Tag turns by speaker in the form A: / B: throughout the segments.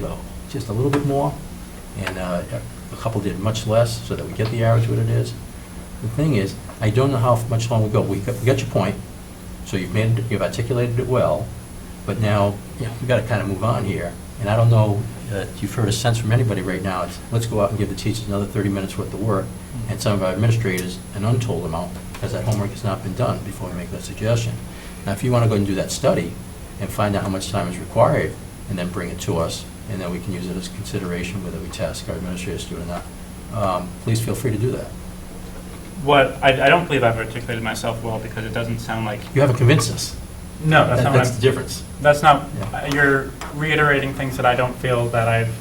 A: though, just a little bit more, and uh, a couple did much less, so that we get the average what it is. The thing is, I don't know how much longer we go. We got we got your point, so you've made, you've articulated it well, but now, you know, we've got to kind of move on here. And I don't know, uh, if you've heard a sense from anybody right now, it's, let's go out and give the teachers another 30 minutes worth of work, and some of our administrators an untold amount, because that homework has not been done before we make that suggestion. Now, if you want to go and do that study and find out how much time is required, and then bring it to us, and then we can use it as consideration whether we task our administrators to do it or not, um, please feel free to do that.
B: What, I, I don't believe I've articulated myself well because it doesn't sound like,
A: You haven't convinced us.
B: no, that's
A: That-
B: not what
A: That's the
B: I'm,
A: difference.
B: that's not,
A: Yeah.
B: uh, you're reiterating things that I don't feel that I've,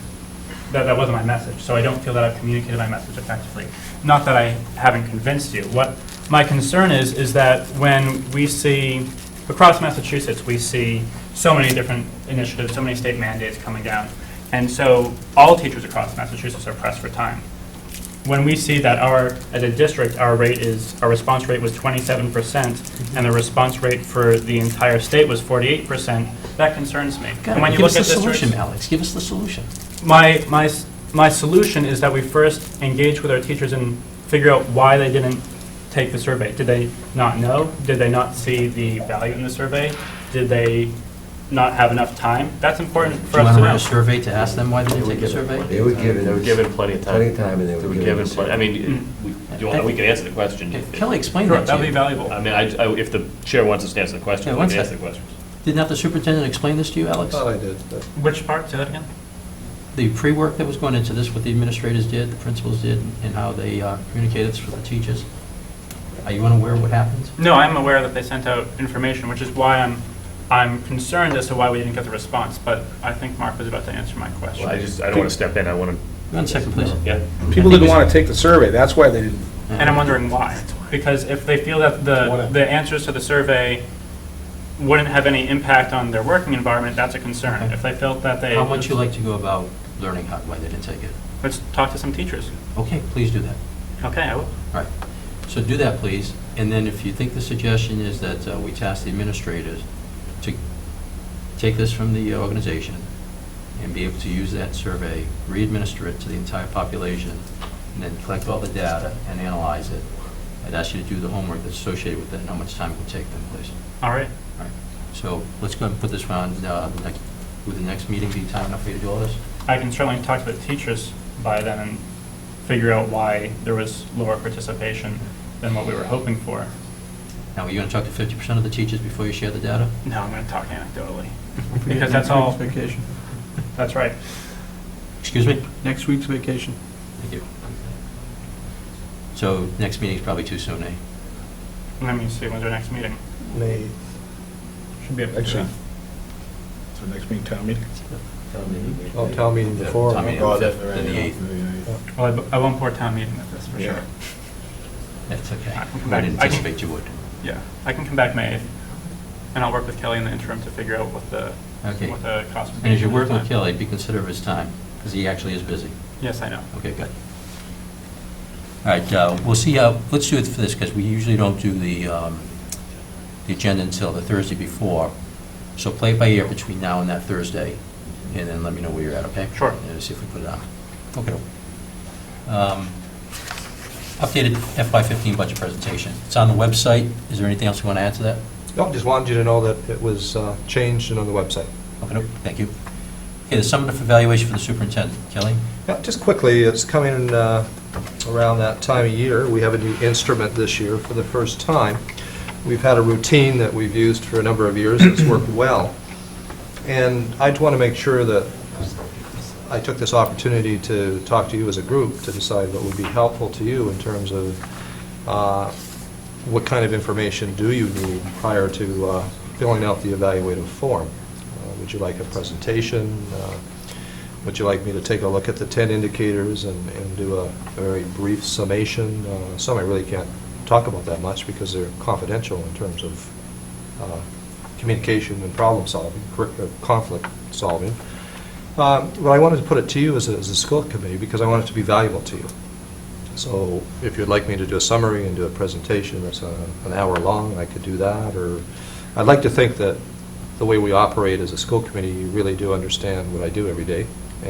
B: that, that wasn't my message. So I don't feel that I've communicated my message effectively. Not that I haven't convinced you. What my concern is, is that when we see, across Massachusetts, we see so many different initiatives, so many state mandates coming down. And so all teachers across Massachusetts are pressed for time. when we see that our, as a district, our rate is, our response rate was twenty-seven percent, and the response rate for the entire state was forty-eight percent, that concerns me. And when you
A: Give us
B: look
A: the
B: at
A: solution,
B: districts,
A: Alex, give us the solution.
B: my, my, s- my solution is that we first engage with our teachers and figure out why they didn't take the survey. Did they not know? Did they not see the value in the survey? Did they not have enough time? That's important
A: Do
B: for
A: you
B: us
A: want
B: to
A: to run
B: know.
A: a survey to ask them why they didn't take a survey?
C: They would give it.
D: They were given plenty of time.
C: Plenty of time, Mm. and they
D: They
C: were
D: were
C: given
D: given
C: it.
D: plenty, I mean, we, do you want, we can answer the question.
A: If
D: if-
A: Kelly explained
B: Sure,
A: that
B: That'd
A: to
B: be
A: you. Uh,
B: valuable.
D: I mean, I, I- if the chair wants us to answer the
A: Yeah,
D: question, we
A: one
D: can answer
A: sec.
D: the questions.
A: Didn't have the superintendent explain this to you, Alex?
C: Thought I did, but
B: Which part, say that again?
A: The pre-work that was going into this, what the administrators did, the principals did, and how they uh, communicated this with the teachers? Are you unaware of what happened?
B: No, I'm aware that they sent out information, which is why I'm, I'm concerned as to why we didn't get the response, but I think Mark was about to answer my
D: Well, I
B: question.
D: just, I don't want to step in, I want to,
A: One second, please.
D: yeah.
E: People didn't want to take the survey, that's why they didn't.
B: And I'm wondering why, because if they feel that the,
E: Whatever.
B: the answers to the survey wouldn't have any impact on their working environment, that's a concern. If they felt that they,
A: How would you like to go about learning how, why they didn't take it?
B: let's talk to some teachers.
A: Okay, please do that.
B: Okay, I will.
A: All right. So do that, please. And then if you think the suggestion is that uh, we task the administrators to take this from the organization and be able to use that survey, re-administer it to the entire population, and then collect all the data and analyze it, I'd ask you to do the homework that's associated with that and how much time it would take them, please.
B: All right.
A: All right. So let's go and put this on, uh, the next- would the next meeting be time enough for you to do all this?
B: I can certainly talk to the teachers by then and figure out why there was lower participation than what we were hoping for.
A: Now, are you going to talk to 50% of the teachers before you share the data?
B: No, I'm going to talk anecdotally, because that's all,
F: Vacation,
B: that's right.
A: Excuse me?
F: next week's vacation.
A: Thank you. So next meeting's probably too soon, eh?
B: Let me see, when's our next meeting?
E: May,
B: Should be able to do
E: actually,
B: that.
E: so next meeting, town meeting?
C: Oh, town meeting before.
A: Town meeting.
C: Oh,
A: the fifth, then the eighth.
B: Well, I bu- I won't pour town meeting with this, for sure.
E: Yeah.
A: That's okay.
B: I can come
A: I
B: back.
A: didn't
B: I can-
A: anticipate you would.
B: Yeah, I can come back May 8th, and I'll work with Kelly in the interim to figure out what the,
A: Okay.
B: what the cost would be.
A: And as you're
B: for
A: working
B: the
A: with
B: time.
A: Kelly, be considerate of his time, because he actually is busy.
B: Yes, I know.
A: Okay, good. All right, uh, we'll see how, let's do it for this, because we usually don't do the, um, the agenda until the Thursday before. So play it by ear between now and that Thursday, and then let me know where you're at, okay?
B: Sure.
A: And see if we put it on. Okay. Um, Updated FY15 budget presentation. It's on the website. Is there anything else you want to add to that?
C: No, Oh, just wanted you to know that it was uh, changed and on the website.
A: Okay, thank you. Okay, the summative evaluation for the superintendent. Kelly?
C: Yeah, Just quickly, it's coming uh, around that time of year. We have a new instrument this year for the first time. We've had a routine that we've used for a number of years that's worked well. And I just want to make sure that I took this opportunity to talk to you as a group to decide what would be helpful to you in terms of uh, what kind of information do you need prior to uh, filling out the evaluative form? Uh, Would you like a presentation? Uh, Would you like me to take a look at the 10 indicators and and do a very brief summation? Uh, Some I really can't talk about that much because they're confidential in terms of uh, communication and problem-solving, cor- uh, conflict-solving. Um, But I wanted to put it to you as a, as a school committee, because I want it to be valuable to you. So if you'd like me to do a summary and do a presentation that's uh, an hour long, I could do that, or, I'd like to think that the way we operate as a school committee, you really do understand what I do every day,